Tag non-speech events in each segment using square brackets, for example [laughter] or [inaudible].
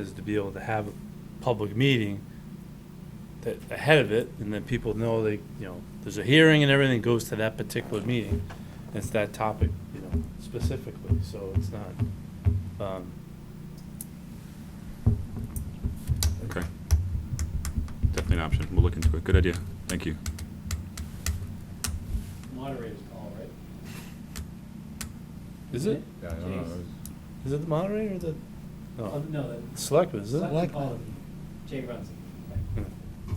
is to be able to have a public meeting that, ahead of it, and then people know they, you know, there's a hearing and everything goes to that particular meeting. and It's that topic, you know, specifically, so it's not, um, Okay. Definitely an option. We'll look into it. Good idea. Thank you. moderator's call, right? is it, Yeah, I don't know. Jeez. is it the moderator or the, Oh, no, No, the. selectmen, is it? selectman Like- call, Jay runs it. Yeah.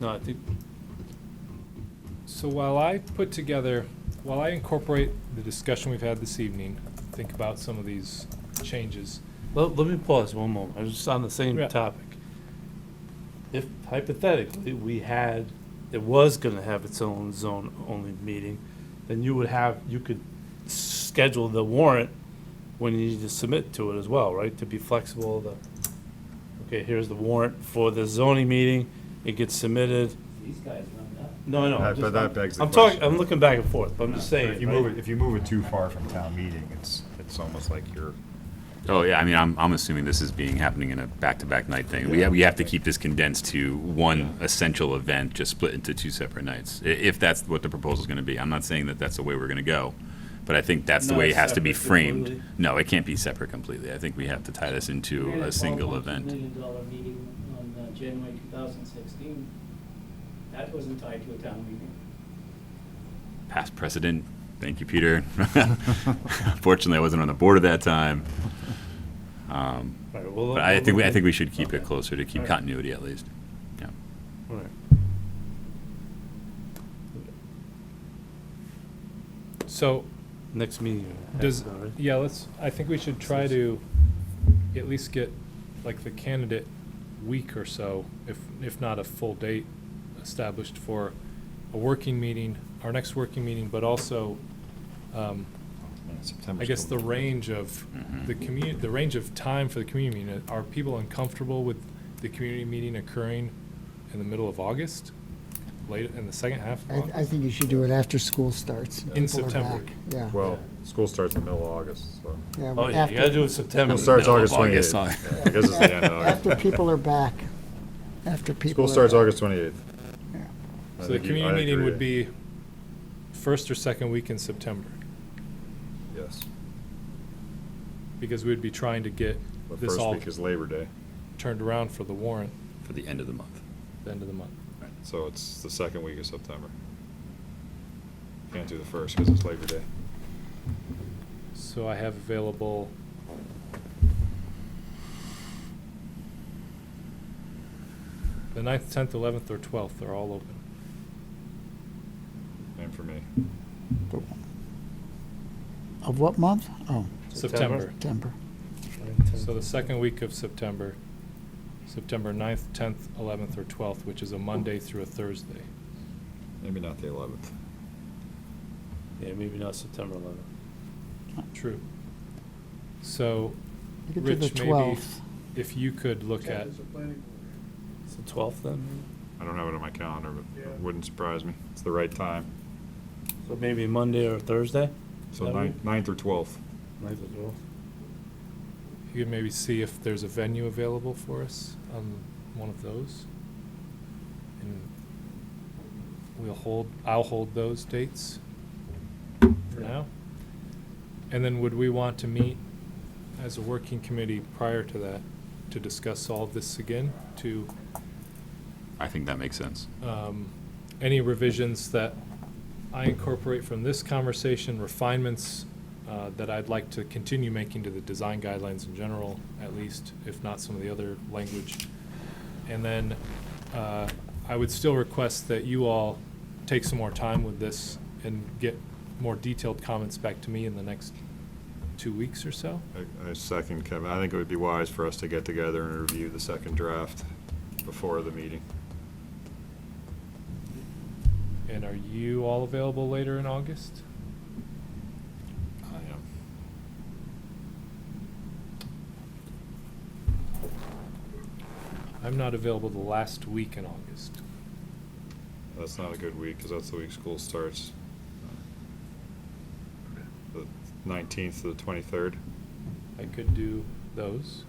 No, I think, So while I put together, while I incorporate the discussion we've had this evening, think about some of these changes. Let, let me pause one moment, I was just on the same Yeah. topic. If hypothetically, we had, it was gonna have its own zone-only meeting, then you would have, you could schedule the warrant when you need to submit to it as well, right? To be flexible, the, okay, here's the warrant for the zoning meeting, it gets submitted. These guys run it up. No, no, I'm That- but that begs just- the I'm talking, question. I'm looking back and forth, but I'm just saying. If you right? move it, if you move it too far from town meeting, it's, it's almost like you're, Oh, yeah, I mean, I'm, I'm assuming this is being, happening in a back-to-back night thing. We have, we have to keep this condensed to one essential event, just split into two separate nights, i- if that's what the proposal's gonna be. I'm not saying that that's the way we're gonna go, but I think that's the Not way it has to be separate framed. completely? No, it can't be separate completely. I think we have to tie this into We had a single $12.2 event. Million dollar meeting on uh, January two thousand sixteen. That wasn't tied to a town meeting. Past precedent, thank you, Peter. [laughs] Fortunately, I wasn't on the board at that uh, time. Um, All right, well, But I we'll think, we- I look think at- we should keep it Okay. closer to keep Alright. continuity at least. Yeah. all right. So Next meeting. I have does, it all right. yeah, let's, I think we should try to at least get like the candidate week or so, if, if not a full date established for a working meeting, our next working meeting, but also, um, September. I guess the range of Mhm. the community, the range of time for the community meeting, are people uncomfortable with the community meeting occurring in the middle of August? Late in the second half of I, I August? think you should do it after school starts. and In people are September. back. Yeah. Well, school starts in the middle of August, so. yeah, Oh, yeah, you gotta after- do it September. It starts middle of August, August twenty-eighth. huh? I guess it's the end of August. After people are back, after people School are. starts back. August twenty-eighth. Yeah. So the community meeting would be first or second week in September, Yes. because we'd be trying to get The this first all week is Labor Day, turned around for the warrant For the end of the month. at the end of the month. so it's the second week of September. Can't do the first because it's Labor Day. So I have available the ninth, tenth, eleventh, or twelfth are all open. And for me, Of what month? Oh, September. September. So the second week of September, September ninth, tenth, eleventh, or twelfth, which is a Monday through a Thursday. maybe not the eleventh. Yeah, maybe not September eleventh. True. So You could do the Rich, maybe- 12th. if you could look at, It's the twelfth then? I don't have it on my calendar, but Yeah. it wouldn't surprise me. It's the right time. So maybe Monday or Thursday? So That ninth, ninth or twelfth. Might as well. you could maybe see if there's a venue available for us on one of those. And we'll hold, I'll hold those dates for now. And then would we want to meet as a working committee prior to that to discuss all of this again? To I think that makes sense. um, any revisions that I incorporate from this conversation, refinements uh, that I'd like to continue making to the design guidelines in general, at least, if not some of the other language. And then uh, I would still request that you all take some more time with this and get more detailed comments back to me in the next two weeks or so. I- I second Kevin. I think it would be wise for us to get together and review the second draft before the meeting. And are you all available later in August? I am. I'm not available the last week in August. That's not a good week, because that's the week school starts. The nineteenth to the twenty-third. I could do those.